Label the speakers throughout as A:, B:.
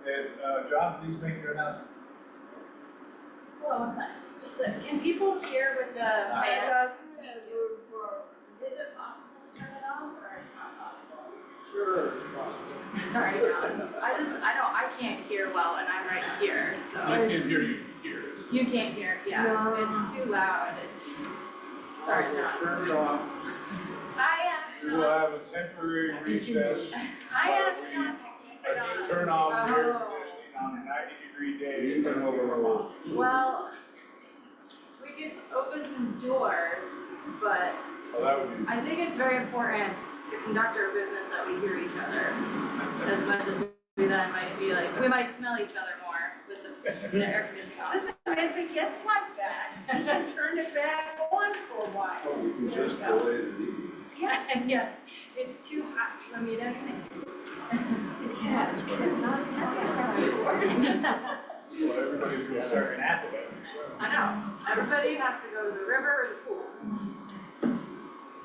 A: Uh, John, please make your announcement.
B: Hello, what's that? Just the, can people hear with the
C: Uh,
B: fan? Is it possible to turn it off or it's not possible?
D: Sure, it's possible.
B: Sorry, John, I just, I don't, I can't hear well and I'm right here, so.
E: I can't hear you here, so.
B: You can't hear, yeah, it's too loud, it's, sorry, John.
D: Turn it off.
B: I asked
A: We will
B: John,
A: have a temporary recess,
B: I asked John to keep it
A: uh,
B: on.
A: turn off the air
B: Oh.
A: conditioning on a ninety degree day and turn over the lights.
B: Well, we could open some doors, but
A: Well, that would be,
B: I think it's very important to conduct our business that we hear each other. As much as we then might be like, we might smell each other more with the, the air conditioning on.
C: Listen, if it gets like that, you can turn it back on for a while.
F: Oh, we can just delay the meeting.
B: Yeah, yeah, it's too hot to a meeting.
C: Yes, it's not
A: well, everybody's gonna start an apple, so.
B: I know, everybody has to go to the river or the pool.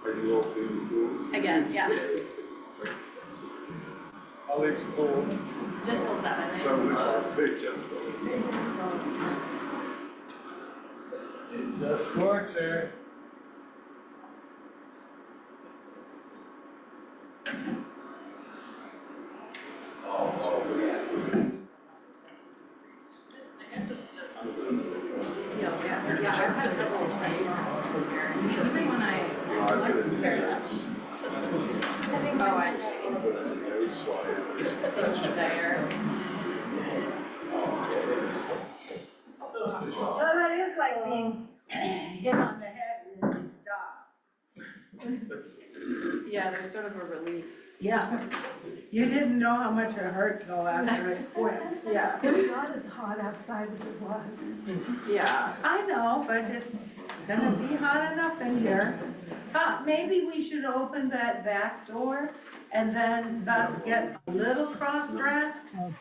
F: Are you all seeing the pools?
B: Again, yeah.
A: I'll explore.
B: Just till seven, it's
F: So we
B: closed.
F: just, they just go.
A: It's a scorcher.
F: Oh, oh,
B: Just- I guess it's just, you know, yeah, yeah, I've had trouble saying that. Usually when
F: yeah. I
B: I,
F: put
B: like
F: it
B: to
F: in
B: pair it
F: there.
B: up. Oh, I see.
F: I put it in there, so I-
B: So it's there.
C: Well, that is like being hit on the head and then you stop.
B: Yeah, there's sort of a relief.
C: Yeah. You didn't know how much it hurt till after it quit.
B: Yeah,
G: It's not as hot outside as it was.
B: yeah.
C: I know, but it's gonna be hot enough in here. Uh, maybe we should open that back door and then thus get a little cross draft.
E: I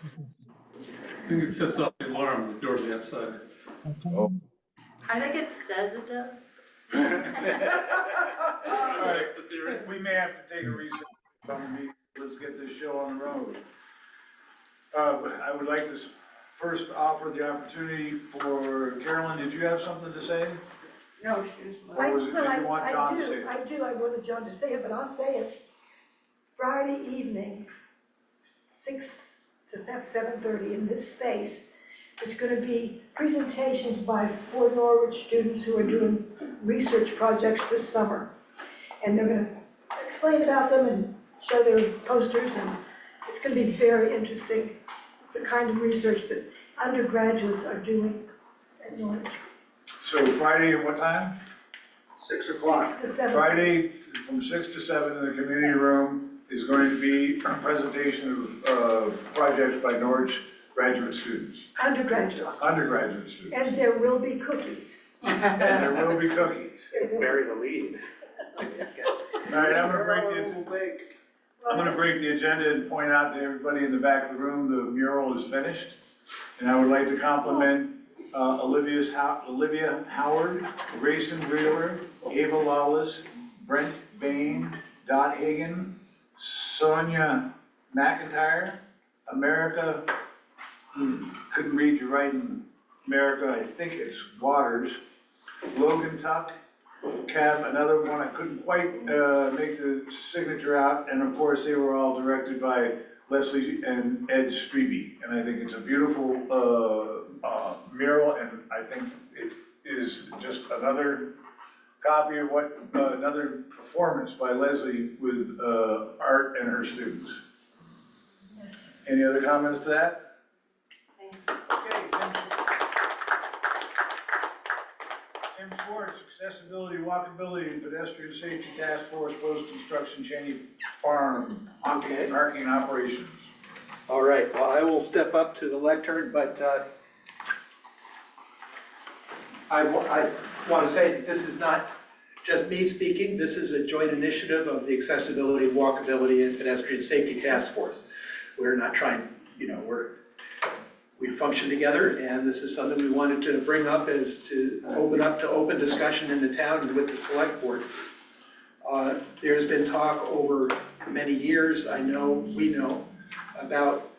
E: think it sets off the alarm, the door to the outside.
B: I think it says it does.
E: That's the theory.
A: We may have to take a recess, come meet, let's get this show on the road. Uh, but I would like to s- first offer the opportunity for, Carolyn, did you have something to say?
C: No, she's.
A: Or was it, did
G: I- no,
A: you
G: I-
A: want
G: I
A: John to
G: do,
A: say it?
G: I do, I wanted John to say it, but I'll say it. Friday evening, six to seven thirty in this space, it's gonna be presentations by four Norwich students who are doing research projects this summer. And they're gonna explain about them and show their posters, and it's gonna be very interesting, the kind of research that undergraduates are doing at Norwich.
A: So Friday at what time?
D: Six
G: Six to seven.
A: Friday from six to seven in the community room is going to be a presentation of, uh, projects by Norwich graduate students,
G: undergraduates,
A: undergraduate students.
G: and there will be cookies.
A: And there will be cookies.
G: There will-
H: bury the lead.
A: All right, I'm gonna break the, I'm gonna break the agenda and point out to everybody in the back of the room, the mural is finished. And I would like to compliment uh, Olivia's, How- Olivia Howard, Grayson Wheeler, Ava Lawless, Brent Bain, Dot Hagan, Sonia McIntyre, America, hmm, couldn't read your writing, America, I think it's Waters, Logan Tuck, Kev, another one I couldn't quite uh, make the signature out, and of course, they were all directed by Leslie and Ed Strebe. And I think it's a beautiful uh, uh, mural, and I think it is just another copy of what, uh, another performance by Leslie with uh, art and her students. Any other comments to that? Okay, thank you. Tim Schwartz, accessibility, walkability, and pedestrian safety task force, post-construction Cheney Farm,
H: Okay.
A: parking operations.
H: All right, well, I will step up to the lectern, but uh, I want to say that this is not just me speaking. This is a joint initiative of the Accessibility, Walkability, and Pedestrian Safety Task Force. We're not trying, you know, we're, we function together, and this is something we wanted to bring up is to open up to open discussion in the town and with the select board. Uh, There's been talk over many years, I know, we know, about